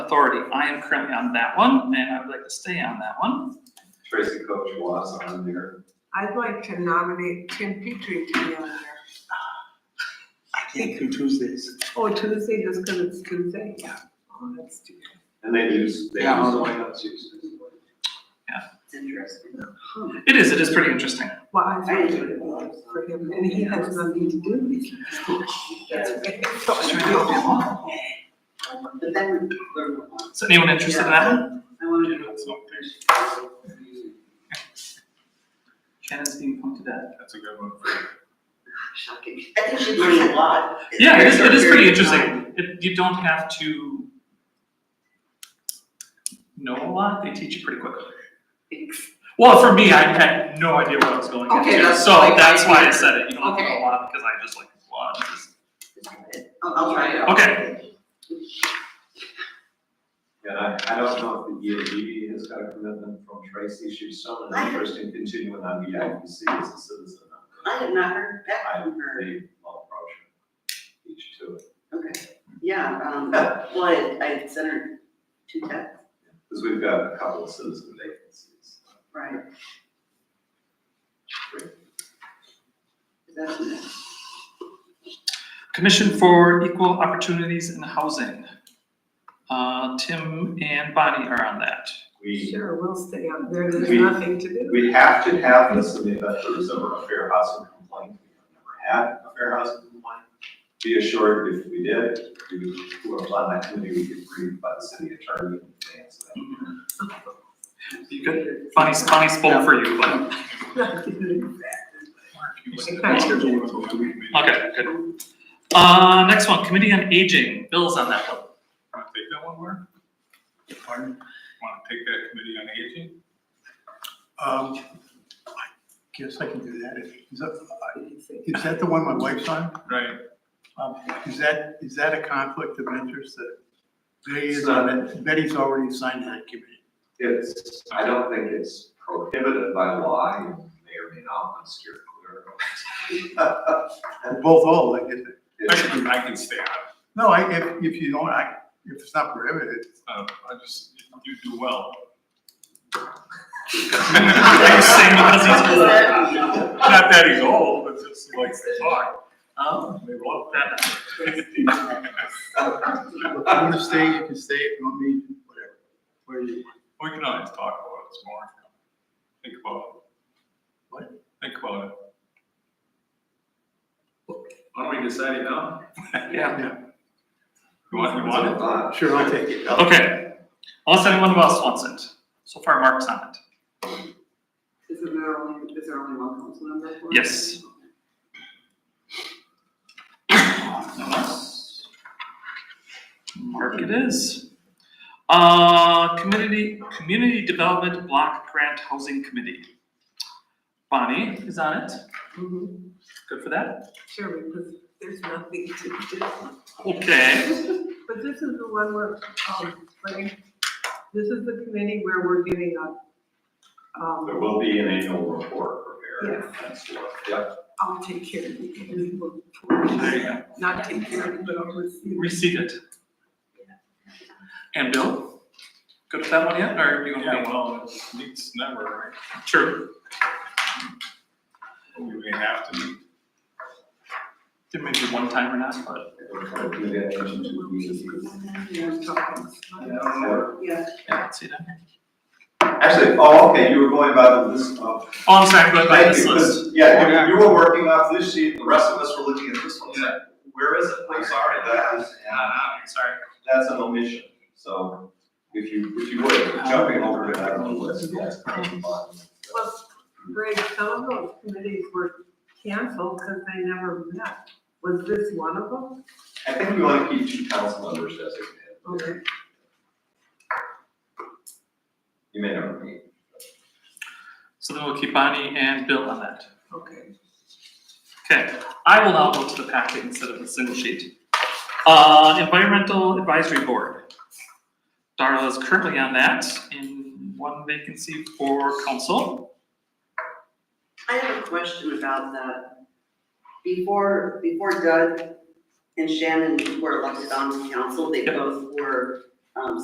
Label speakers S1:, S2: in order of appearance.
S1: Authority, I am currently on that one, and I would like to stay on that one.
S2: Tracy Coach was on there.
S3: I'd like to nominate Tim Petrie to be on there.
S4: I can't do Tuesdays.
S3: Oh, Tuesday, just because it's Tuesday? Yeah. Oh, that's too bad.
S2: And they use, they
S4: Yeah.
S2: use the White House use.
S5: It's interesting.
S1: It is, it is pretty interesting.
S3: Well, I
S5: I
S3: voted
S5: enjoyed it a lot.
S3: for him, and he has nothing to do with it. That's okay. So
S1: Just
S3: I
S1: trying to help
S3: don't
S1: you
S3: know.
S1: along.
S5: But then we learned a lot.
S1: Is anyone interested in that one?
S5: I wanted to know what's up there.
S1: Shannon's being pointed at.
S6: That's a good one.
S5: Shocking. I think she learned a lot. in a
S1: Yeah, it is,
S5: very
S1: it is
S5: short
S1: pretty
S5: period of time.
S1: interesting. It, you don't have to know a lot, they teach you pretty quickly.
S5: Thanks.
S1: Well, for me, I had no idea what I was going
S5: Okay,
S1: into,
S5: that's
S1: so
S5: like-
S1: that's why I said it, you don't know a
S5: Okay.
S1: lot, because I just like, wow, this
S5: I'll, I'll try it out.
S1: Okay.
S2: And I, I don't know if the EAB has got a commitment from Tracy, she's so interested in continuing on the IBC as a citizen.
S5: I had not heard
S2: I,
S5: that
S2: they
S5: from her.
S2: all approach each to it,
S5: Okay, yeah, um, well, I, I sent her two texts,
S2: because we've got a couple of citizen vacancies.
S5: right? Is that the next?
S1: Commission for Equal Opportunities in Housing. Uh, Tim and Bonnie are on that.
S2: We,
S3: Sure, we'll stay on there, there's
S2: We-
S3: nothing to do.
S2: we have to have this in the event there is ever a fair housing complaint, we've never had a fair housing complaint. Be assured, if we did, we would, who are on that committee, we could read by the city attorney in advance of that.
S1: You good? Bonnie's, Bonnie spoke for you, but. Okay, good. Uh, next one, Committee on Aging, Bill's on that one.
S6: Want to take that one, Mark?
S4: Pardon?
S6: Want to take that committee on aging?
S4: Um, I guess I can do that. Is that, is that the one my wife's on?
S6: Right.
S4: Um, is that, is that a conflict of interest that Betty is
S2: It's
S4: on it? Betty's already signed that committee.
S2: It's, I don't think it's prohibited by law, you may or may not want to steer clear.
S4: Both all, I guess.
S6: I
S2: It's-
S6: can, I can stay on. it.
S4: No, I, if, if you don't, I, if it's not prohibited,
S6: Uh, I just, you do well.
S1: You're saying because he's
S5: Is that-
S6: Not that he's old, but just like to talk.
S1: Oh.
S6: They love
S1: That,
S6: that.
S4: if you want to stay, you can stay, if you want me, whatever. Where you want.
S6: We can always talk about it some more. Think about it.
S4: What?
S6: Think about it.
S2: Why don't we decide it now?
S1: yeah.
S6: You want, you want it?
S2: Uh,
S4: Sure, I'll take it.
S1: Okay. Unless anyone else wants it. So far, Mark's on it.
S5: Is it there only, is there only one council member for it?
S1: Yes. No one else? Mark it is. Uh, Community, Community Development Block Grant Housing Committee. Bonnie is on it.
S3: Mhm.
S1: Good for that.
S3: Sure, because there's nothing to do.
S1: Okay.
S3: But this is the one where, um, like, this is the committee where we're giving up.
S2: There
S3: Um,
S2: will be an annual report prepared,
S3: Yes.
S2: that's what, yep.
S3: I'll take care of it.
S1: There you go.
S3: Not take care of it, but I'll receive it.
S1: Reseat it. And Bill? Good for that one yet, or you want to?
S6: Yeah, well, it's- it's never, right?
S1: True.
S6: You may have to.
S1: There may be one time or not, but.
S3: We're talking.
S5: Yeah.
S1: Yeah, I don't see that.
S2: Actually, oh, okay, you were going uh, by the list
S1: Oh,
S2: of.
S1: I'm sorry, I'm going by
S2: Thank
S1: this
S2: you, 'cause,
S1: list.
S2: Yeah, you- you were working off this sheet, the rest of us were looking at this one, saying, where is it, I'm sorry, that is,
S1: sorry.
S2: that's an omission, so if you, if you would, jumping over to that on the list, yes.
S3: Well, Greg, some of those committees were canceled because they never met. Was this one of them?
S2: I think we want to keep two council members designated.
S3: Okay.
S2: You may never meet.
S1: So then we'll keep Bonnie and Bill on that.
S3: Okay.
S1: Okay, I will now go to the packet instead of the single sheet. Uh, Environmental Advisory Board. Darla is currently on that in one vacancy for council.
S5: I have a question about that. Before, before Doug and Shannon were elected on the council, they
S1: Yep.
S5: both were, um,